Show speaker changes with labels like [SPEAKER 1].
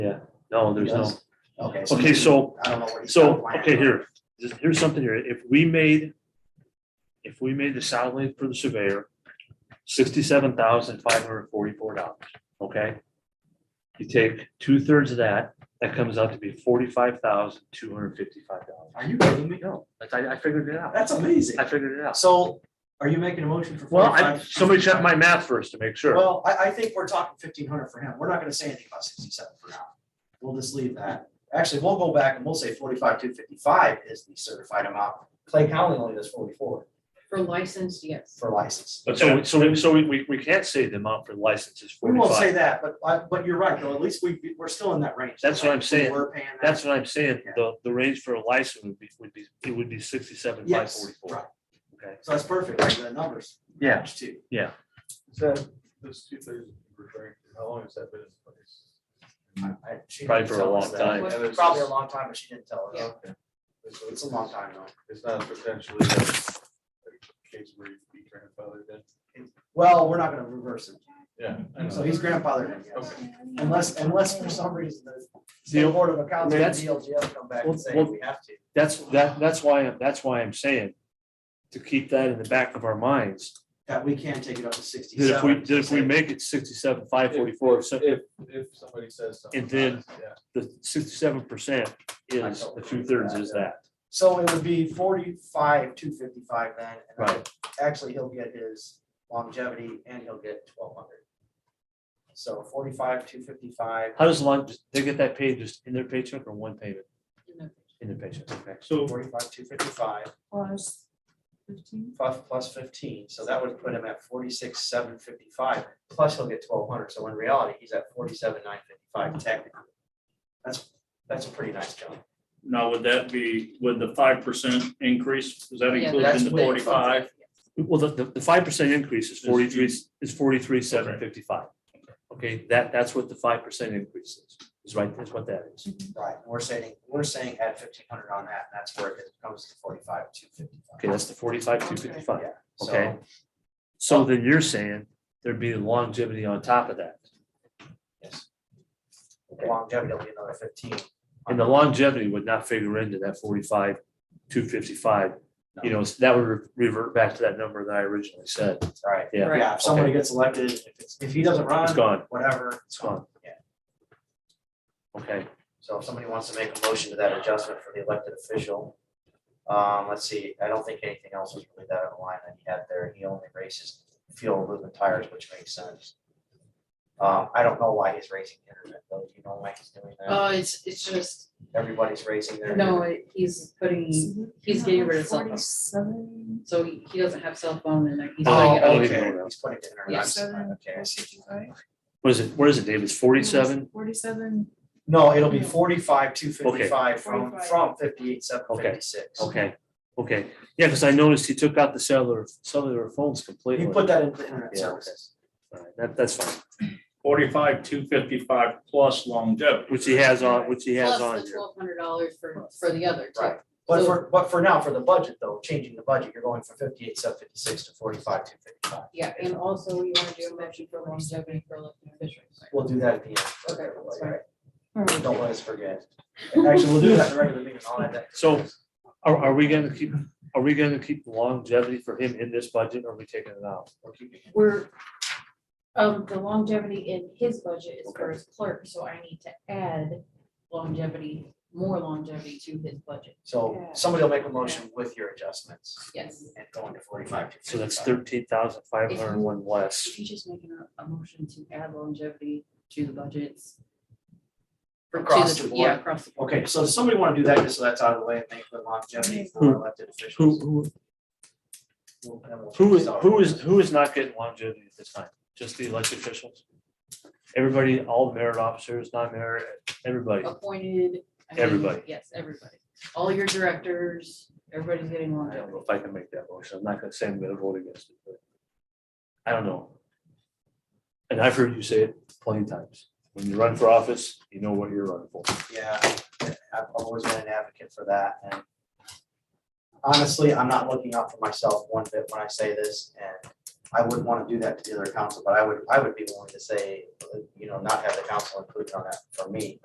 [SPEAKER 1] No, there's no.
[SPEAKER 2] Okay.
[SPEAKER 1] Okay, so,
[SPEAKER 2] I don't know what he's
[SPEAKER 1] so,
[SPEAKER 2] outlining.
[SPEAKER 1] okay, here, just- here's something here. If we made, if we made the salary for the surveyor sixty-seven thousand five hundred forty-four dollars, okay? You take two-thirds of that, that comes out to be forty-five thousand two hundred fifty-five dollars.
[SPEAKER 2] Are you kidding me?
[SPEAKER 1] No, that's- I, I figured it out.
[SPEAKER 2] That's amazing.
[SPEAKER 1] I figured it out.
[SPEAKER 2] So are you making a motion for?
[SPEAKER 1] Well, I,
[SPEAKER 2] 45?
[SPEAKER 1] somebody check my math first to make sure.
[SPEAKER 2] Well, I, I think we're talking fifteen hundred for him. We're not gonna say anything about sixty-seven for now. We'll just leave that. Actually, we'll go back and we'll say forty-five, two fifty-five is the certified amount. Clay County only does forty-four
[SPEAKER 3] For licensed, yes.
[SPEAKER 2] for license.
[SPEAKER 1] But so, so, we- so we- we, we can't say the amount for licenses
[SPEAKER 2] We won't say
[SPEAKER 1] forty-five.
[SPEAKER 2] that, but, I- but you're right, though. At least we, we're still in that range.
[SPEAKER 1] That's what I'm saying.
[SPEAKER 2] We're paying. that.
[SPEAKER 1] That's what I'm saying. The, the range for a license would be, would be, it would be sixty-seven five
[SPEAKER 2] Yes,
[SPEAKER 1] forty-four.
[SPEAKER 2] right.
[SPEAKER 1] Okay.
[SPEAKER 2] So that's perfect, right? The numbers.
[SPEAKER 1] Yeah,
[SPEAKER 2] match too.
[SPEAKER 4] Is that, those two things you're referring to, how long has that been in place?
[SPEAKER 2] I- she
[SPEAKER 1] Probably
[SPEAKER 2] didn't
[SPEAKER 1] for a
[SPEAKER 2] tell us
[SPEAKER 1] long
[SPEAKER 2] that.
[SPEAKER 1] time.
[SPEAKER 4] And it's
[SPEAKER 2] Probably a
[SPEAKER 4] just-
[SPEAKER 2] long time, but she didn't tell us.
[SPEAKER 3] Yeah.
[SPEAKER 4] okay. So
[SPEAKER 2] It's a long time though.
[SPEAKER 4] It's not potentially a a case where you be grandfathered in.
[SPEAKER 2] Well, we're not gonna reverse it.
[SPEAKER 4] Yeah. I
[SPEAKER 2] So
[SPEAKER 4] know.
[SPEAKER 2] he's grandfathered in, yes.
[SPEAKER 4] Okay.
[SPEAKER 2] Unless, unless for some reason the
[SPEAKER 1] Deal-
[SPEAKER 2] State Board of Accounts and
[SPEAKER 1] That's-
[SPEAKER 2] DLGF come back
[SPEAKER 1] Well,
[SPEAKER 2] and say
[SPEAKER 1] well-
[SPEAKER 2] we have to.
[SPEAKER 1] that's, that, that's why, that's why I'm saying to keep that in the back of our minds.
[SPEAKER 2] That we can take it up to
[SPEAKER 1] That
[SPEAKER 2] sixty-seven.
[SPEAKER 1] if we, that if we make it sixty-seven five forty-four, so
[SPEAKER 4] If, if somebody says something.
[SPEAKER 1] And then-
[SPEAKER 4] about it, yeah.
[SPEAKER 1] the sixty-seven percent is, the two-thirds is that.
[SPEAKER 2] So it would be forty-five, two fifty-five then. and then Actually, he'll get his longevity and he'll get twelve hundred. So forty-five, two fifty-five,
[SPEAKER 1] How does long, they get that paid just in their paycheck or one payment in their paycheck? Okay.
[SPEAKER 5] So
[SPEAKER 2] forty-five, two fifty-five.
[SPEAKER 3] Plus fifteen?
[SPEAKER 2] plus, plus fifteen, so that would put him at forty-six, seven fifty-five, plus he'll get twelve hundred, so in reality, he's at forty-seven, nine fifty-five technically. That's, that's a pretty nice jump.
[SPEAKER 5] now would that be with the five percent increase? Is that
[SPEAKER 3] Yeah,
[SPEAKER 5] included
[SPEAKER 2] that's
[SPEAKER 5] in the
[SPEAKER 2] with-
[SPEAKER 5] forty-five?
[SPEAKER 1] Well, the- the, the five percent increase is forty-three, is forty-three, seven fifty-five. Okay, that, that's what the five percent increase is, is right, that's what that is.
[SPEAKER 2] Right, and we're saying, we're saying add fifteen hundred on that, and that's where it comes to forty-five, two
[SPEAKER 1] Okay,
[SPEAKER 2] fifty-five.
[SPEAKER 1] that's the forty-five, two fifty-five.
[SPEAKER 2] So,
[SPEAKER 1] Okay. So then you're saying there'd be longevity on top of that.
[SPEAKER 2] yes. Longevity will be another fifteen.
[SPEAKER 1] And the longevity would not figure into that forty-five, two fifty-five. You know, that would re- revert back to that number that I originally said.
[SPEAKER 2] Right,
[SPEAKER 1] Yeah.
[SPEAKER 3] Right.
[SPEAKER 2] yeah, if somebody gets elected, if it's, if he doesn't
[SPEAKER 1] It's
[SPEAKER 2] run,
[SPEAKER 1] gone,
[SPEAKER 2] whatever,
[SPEAKER 1] it's gone.
[SPEAKER 2] Yeah.
[SPEAKER 1] Okay,
[SPEAKER 2] So if somebody wants to make a motion to that adjustment for the elected official, um, let's see, I don't think anything else was really that out of line that he had there. He only raises fuel movement tires, which makes sense. Um, I don't know why he's raising internet though. Do you know why he's doing that?
[SPEAKER 3] Oh, it's, it's just,
[SPEAKER 2] Everybody's raising their.
[SPEAKER 1] Oh,
[SPEAKER 3] no, it- he's putting, he's getting rid of cell phone.
[SPEAKER 6] Forty-seven.
[SPEAKER 3] so he he doesn't have cell phone and like he's
[SPEAKER 2] Oh,
[SPEAKER 3] like,
[SPEAKER 1] Oh,
[SPEAKER 3] oh,
[SPEAKER 2] okay,
[SPEAKER 1] okay.
[SPEAKER 2] he's putting it in.
[SPEAKER 3] Yeah,
[SPEAKER 2] our
[SPEAKER 6] seven.
[SPEAKER 2] Okay, I see.
[SPEAKER 1] what is it, what is it, Dave? It's forty-seven?
[SPEAKER 6] Forty-seven.
[SPEAKER 2] No, it'll be forty-five, two fifty-five from,
[SPEAKER 6] 45.
[SPEAKER 2] from fifty-eight, seven fifty-six.
[SPEAKER 1] Okay, okay. Yeah, because I noticed he took out the cellular, cellular phones completely.
[SPEAKER 2] You put that in for internet
[SPEAKER 1] Yeah, okay.
[SPEAKER 2] services.
[SPEAKER 1] All right, That, that's fine,
[SPEAKER 5] Forty-five, two fifty-five plus longevity.
[SPEAKER 1] which he has on, which he has on
[SPEAKER 3] plus the
[SPEAKER 1] here.
[SPEAKER 3] twelve hundred dollars for, for the other two.
[SPEAKER 2] Right. But for, but for now, for the budget though, changing the budget, you're going from fifty-eight, seven fifty-six to forty-five, two fifty-five.
[SPEAKER 3] Yeah, and also we want to do a motion for longevity for elected officials.
[SPEAKER 2] We'll do that at the end.
[SPEAKER 3] Okay, that's fine.
[SPEAKER 2] Don't let us forget. Actually, we'll do that in the regular meeting. I'll add that.
[SPEAKER 1] So are, are we gonna keep, are we gonna keep longevity for him in this budget or are we taking it out?
[SPEAKER 2] We're keeping it.
[SPEAKER 3] We're, um, the longevity in his budget is for
[SPEAKER 1] Okay.
[SPEAKER 3] his clerk, so I need to add longevity, more longevity to his budget,
[SPEAKER 2] So somebody will make a motion with your adjustments
[SPEAKER 3] yes.
[SPEAKER 2] and going to forty-five.
[SPEAKER 1] So that's thirteen thousand five hundred and one less.
[SPEAKER 3] If you just making a, a motion to add longevity to the budgets. or to
[SPEAKER 2] Across the
[SPEAKER 3] Yeah,
[SPEAKER 2] board?
[SPEAKER 3] across the board.
[SPEAKER 2] Okay, so does somebody want to do that just so that's out of the way and make the longevity for elected
[SPEAKER 1] Who,
[SPEAKER 2] officials?
[SPEAKER 1] who,
[SPEAKER 2] We'll- and we'll-
[SPEAKER 1] who is, who is, who is not getting longevity at this time? Just the elected officials? Everybody, all merit officers, non-merit, everybody.
[SPEAKER 3] Appointed. I mean,
[SPEAKER 1] Everybody.
[SPEAKER 3] Yes, everybody. All your directors, everybody's getting
[SPEAKER 1] I don't
[SPEAKER 3] longevity.
[SPEAKER 1] know if I can make that motion. I'm not gonna say I'm gonna vote against it, but I don't know. And I've heard you say it plenty of times. When you run for office, you know what you're running for.
[SPEAKER 2] Yeah, I've always been an advocate for that and honestly, I'm not looking out for myself one bit when I say this and I wouldn't want to do that to the other council, but I would, I would be willing to say, you know, not have the council included on that for me.